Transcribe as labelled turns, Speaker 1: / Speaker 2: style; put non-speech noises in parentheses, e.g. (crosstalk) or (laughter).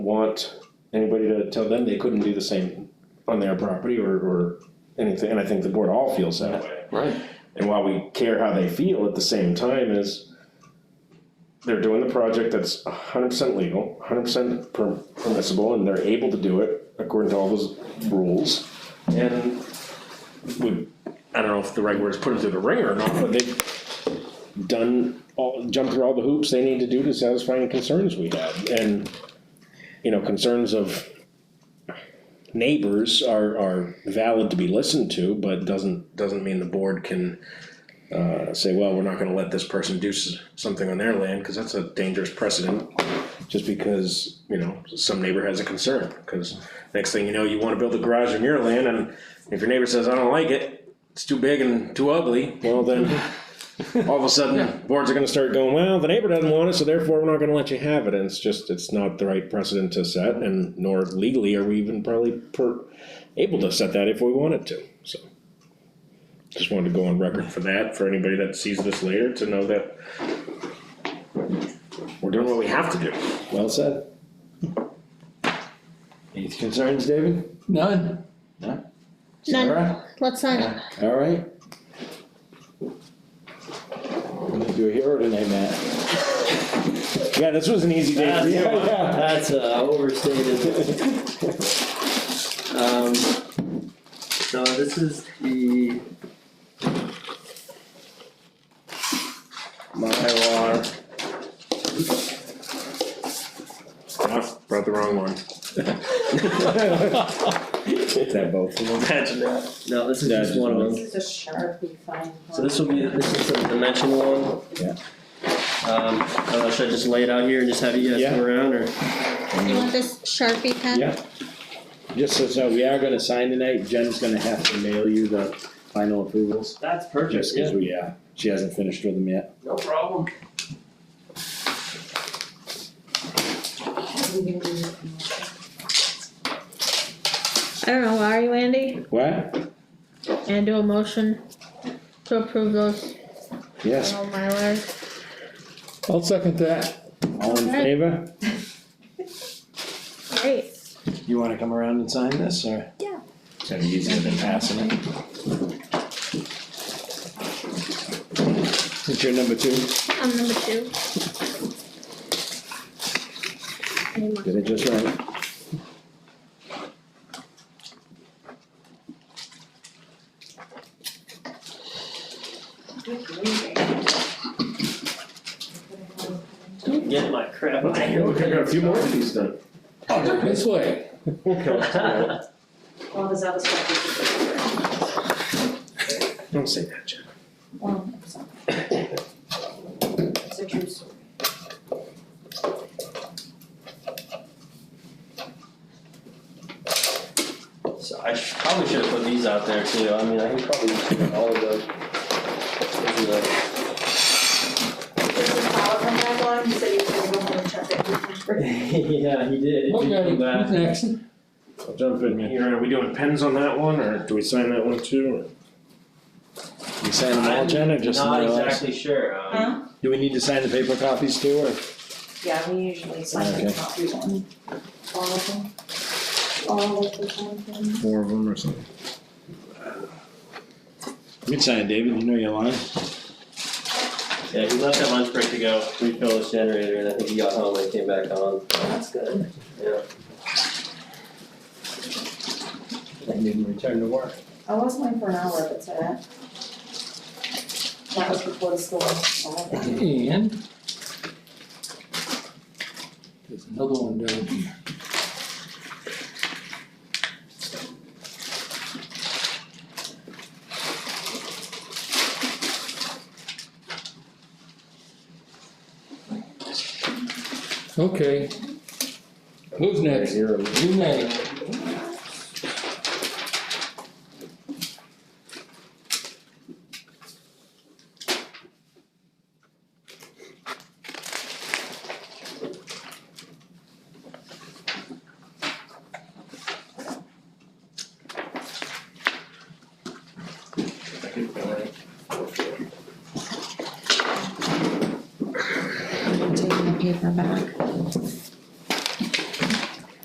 Speaker 1: want anybody to tell them they couldn't do the same on their property or, or anything, and I think the board all feels that way.
Speaker 2: Right.
Speaker 1: And while we care how they feel at the same time is they're doing the project that's hundred percent legal, hundred percent permissible, and they're able to do it according to all those rules. And we, I don't know if the right word is put them through the ringer or not, but they've done all, jumped through all the hoops they need to do to satisfy any concerns we have, and you know, concerns of neighbors are, are valid to be listened to, but doesn't, doesn't mean the board can uh, say, well, we're not gonna let this person do s- something on their land, cause that's a dangerous precedent. Just because, you know, some neighbor has a concern, cause next thing you know, you wanna build a garage on your land, and if your neighbor says, I don't like it, it's too big and too ugly, well then, all of a sudden, boards are gonna start going, well, the neighbor doesn't want it, so therefore we're not gonna let you have it, and it's just, it's not the right precedent to set, and nor legally are we even probably per, able to set that if we wanted to, so. Just wanted to go on record for that, for anybody that sees this later to know that we're doing what we have to do.
Speaker 3: Well said. Any concerns, David?
Speaker 2: None. No.
Speaker 4: None,
Speaker 3: Sarah?
Speaker 4: let's uh, sign it.
Speaker 3: All right. We're gonna do a hero tonight, Matt.
Speaker 1: Yeah, this was an easy day for you.
Speaker 3: Yeah,
Speaker 1: huh?
Speaker 3: (laughs) yeah.
Speaker 5: That's uh, overstated. Um, so this is the Mylar.
Speaker 1: Oh, Brought the wrong one.
Speaker 3: Is that both of them?
Speaker 5: Imagine that. No, this is
Speaker 3: Yeah,
Speaker 5: just
Speaker 3: just
Speaker 5: one of them.
Speaker 6: This is a Sharpie fine.
Speaker 5: So this will be, this is the dimension one.
Speaker 3: Yeah.
Speaker 5: Um, I don't know, should I just lay it out here and just have you guys
Speaker 3: Yeah.
Speaker 5: come around or?
Speaker 4: You want this Sharpie pen?
Speaker 3: Yeah. Just so, so we are gonna sign tonight, Jen's gonna have to mail you the final approvals,
Speaker 5: That's
Speaker 3: just cause we, uh, she hasn't finished with them yet.
Speaker 5: no problem.
Speaker 4: I don't know, are you Andy?
Speaker 3: What?
Speaker 4: And do a motion to approve those,
Speaker 3: Yes,
Speaker 4: oh my word.
Speaker 2: I'll second that.
Speaker 3: all in
Speaker 4: Okay.
Speaker 3: favor?
Speaker 4: Great,
Speaker 3: You wanna come around and sign this, or?
Speaker 4: Yeah.
Speaker 3: It's gonna be easier than passing it. It's your number two?
Speaker 4: I'm number two. Any more?
Speaker 3: Did it just right?
Speaker 5: Get my crap out of
Speaker 1: Okay, look, I
Speaker 5: (laughs)
Speaker 1: got a few more of these done.
Speaker 2: Oh, This way.
Speaker 5: (laughs) here.
Speaker 6: Well, there's other stuff.
Speaker 1: Don't say that, Jen.
Speaker 6: Well, it's not. It's a true story.
Speaker 5: So I sh- probably should have put these out there too, I mean, I can probably just put all of those. (laughs) into the-
Speaker 6: There's a power from that line, so you can go home and check it.
Speaker 5: Yeah, he did, It did
Speaker 2: Okay,
Speaker 5: come back.
Speaker 2: who's next?
Speaker 1: I'll jump in here, are we doing pens on that one, or do we sign that one too?
Speaker 3: You sign them all, Jen, or just the
Speaker 5: I'm
Speaker 3: Mylar?
Speaker 5: not exactly sure, um,
Speaker 6: Huh?
Speaker 3: Do we need to sign the paper copies too, or?
Speaker 6: Yeah, we usually sign the
Speaker 3: Okay.
Speaker 6: copy one. All of them. All of the time thing.
Speaker 3: Four of them or something. You can sign, David, you know your line.
Speaker 5: yeah, he left at lunch break to go refill his generator, and I think he got home and came back on,
Speaker 6: That's good.
Speaker 5: yeah.
Speaker 3: And you can return to work.
Speaker 6: I was mine for an hour, but today. That was before the school, so I think
Speaker 2: And there's another one down here. Okay. Who's next? You next.
Speaker 6: I'm taking the paper back.